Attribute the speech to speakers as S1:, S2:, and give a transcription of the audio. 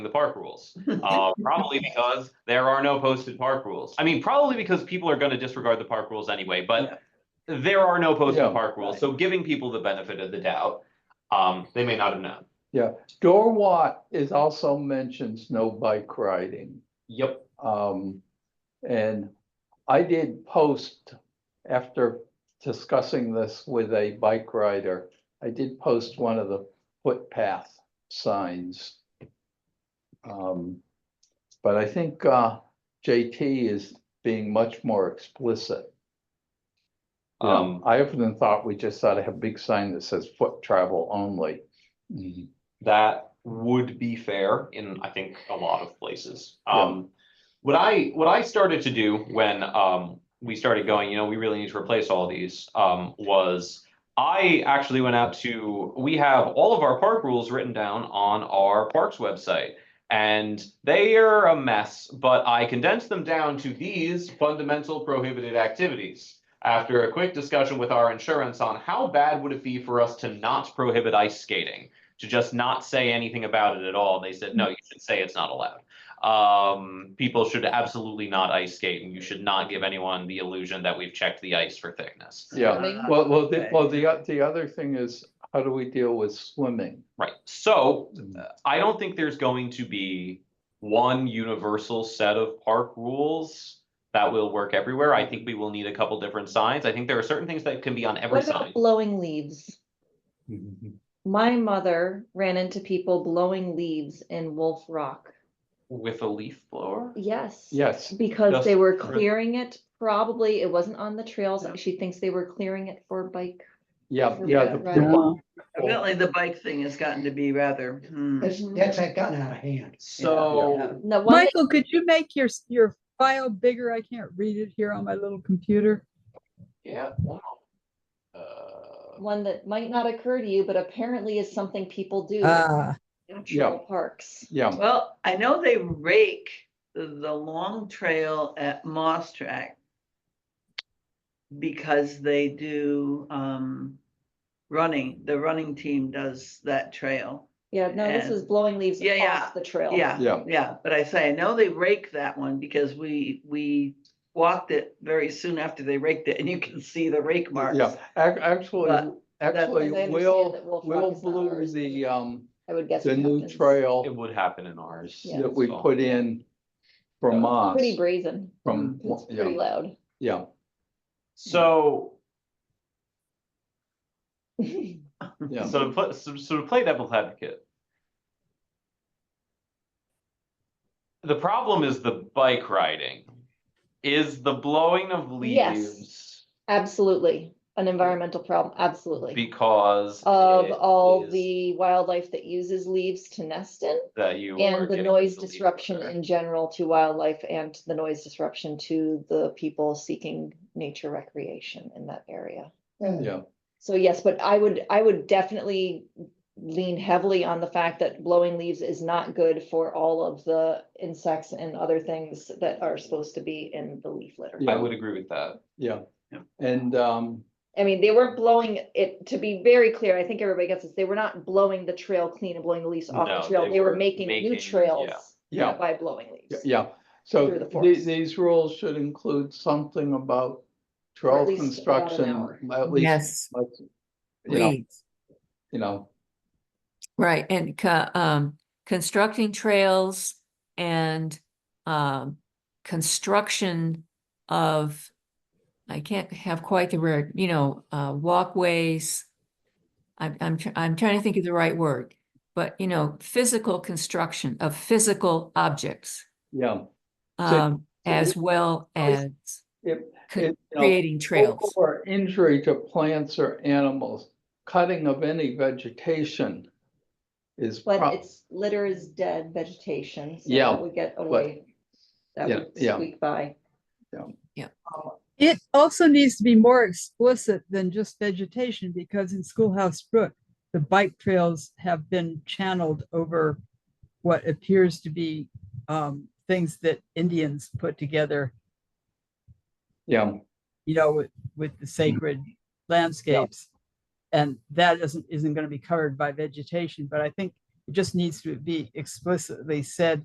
S1: the park rules. Uh, probably because there are no posted park rules. I mean, probably because people are gonna disregard the park rules anyway, but there are no posted
S2: Yeah.
S1: park rules, so giving people the benefit of the doubt, um, they may not have known.
S2: Dorwat is also mentions no bike riding.
S1: Yep.
S2: Um, and I did post after discussing this with a bike rider. I did post one of the footpath signs. Um, but I think, uh, JT is being much more explicit. Um,
S1: Um,
S2: I often thought we just ought to have a big sign that says foot travel only.
S1: that would be fair in, I think, a lot of places.
S2: Yeah.
S1: Um, what I, what I started to do when, um, we started going, you know, we really need to replace all these, um, was I actually went out to, we have all of our park rules written down on our parks website. And they are a mess, but I condensed them down to these fundamental prohibited activities. After a quick discussion with our insurance on how bad would it be for us to not prohibit ice skating? to just not say anything about it at all. They said, no, you should say it's not allowed. Um, people should absolutely not ice skate and you should not give anyone the illusion that we've checked the ice for thickness.
S2: Yeah,
S3: Swimming.
S2: Well, well, the,
S3: Okay.
S2: well, the, o- the other thing is, how do we deal with swimming?
S1: Right. So I don't think there's going to be one universal set of park rules that will work everywhere. I think we will need a couple different signs. I think there are certain things that can be on every
S4: What about
S1: sign.
S4: blowing leaves? My mother ran into people blowing leaves in Wolf Rock.
S1: With a leaf blower?
S4: Yes.
S2: Yes,
S4: Because they were
S1: Just for-
S4: clearing it, probably it wasn't on the trails.
S3: Yeah.
S4: She thinks they were clearing it for bike.
S2: yeah,
S4: For
S2: yeah.
S4: bike
S2: the- the
S4: riding.
S2: one-
S3: Evidently, the bike thing has gotten to be rather, hmm.
S5: That's, that's gotten out of hand.
S1: So
S4: No, one,
S6: Michael, could you make your, s- your file bigger? I can't read it here on my little computer.
S1: yeah. one of- Uh,
S4: one that might not occur to you, but apparently is something people do. in
S6: Ah,
S4: National parks.
S2: Yeah,
S3: Well, I know they rake the, the long trail at Moss Track because they do, um, running, the running team does that trail.
S4: Yeah, no, this
S3: And-
S4: was blowing leaves
S3: Yeah, yeah,
S4: off the trail.
S3: Yeah,
S2: yeah,
S3: yeah, but I say, I know they rake that one because we, we walked it very soon after they raked it and you can see the rake marks.
S2: yeah. Ac- Actually,
S3: But
S2: actually,
S4: As I understand
S2: Will,
S4: it, Wolf Rock
S2: Will
S4: is not
S2: blew
S4: ours.
S2: the, um,
S4: I would guess.
S2: the
S4: it
S2: new
S4: happens.
S1: it
S2: trail
S1: would happen in ours.
S4: Yeah.
S2: that we
S1: So-
S2: put in
S1: Yeah.
S2: from Moss,
S4: Pretty brazen.
S2: from,
S4: It's pretty
S2: yeah,
S4: loud.
S2: yeah.
S1: So
S2: Yeah.
S1: So to play, so, so to play devil's advocate. The problem is the bike riding, is the blowing of
S4: Yes.
S1: leaves
S4: Absolutely. An environmental problem, absolutely.
S1: because.
S4: of
S1: it
S4: all
S1: is
S4: the wildlife that uses leaves to nest in
S1: That you. are
S4: and the
S1: getting
S4: noise
S1: leaf
S4: disruption
S1: litter.
S4: in general to wildlife and the noise disruption to the people seeking nature recreation in that area.
S2: Yeah.
S4: So yes, but I would, I would definitely lean heavily on the fact that blowing leaves is not good for all of the insects and other things that are supposed to be in the leaf litter.
S1: I would agree with that.
S2: Yeah,
S3: Yeah.
S2: and, um,
S4: I mean, they weren't blowing it, to be very clear, I think everybody gets this, they were not blowing the trail clean and blowing the leaves off
S1: No,
S4: the trail,
S1: they
S4: they were
S1: were
S4: making new
S1: making-
S4: trails.
S1: yeah.
S2: Yeah.
S4: By blowing
S2: y-
S4: leaves.
S2: yeah. So
S4: Through the
S2: the-
S4: forest.
S2: these rules should include something about
S4: Or at
S2: trail
S4: least about an hour.
S2: construction, at least.
S7: Yes,
S2: like, You know,
S7: please.
S2: you know,
S7: Right, and co- um, constructing trails and um, construction of, I can't have quite the word, you know, uh, walkways. I'm, I'm, tr- I'm trying to think of the right word, but you know, physical construction of physical objects.
S2: yeah. so
S7: Um, as well as
S2: It-
S7: con-
S2: it, you know,
S7: creating trails.
S2: Or injury to plants or animals, cutting of any vegetation is. prob-
S4: But it's, litter is dead vegetation. so
S2: Yeah,
S4: that would get away. That
S2: yeah,
S4: would
S2: yeah.
S4: squeak by.
S6: it also needs to be more explicit than just vegetation because in Schoolhouse Brook, the bike trails have been channeled over what appears to be um, things that Indians put together,
S2: Yeah,
S6: you know, with, with the sacred landscapes. And that isn't, isn't going to be covered by vegetation, but I think It just needs to be explicitly said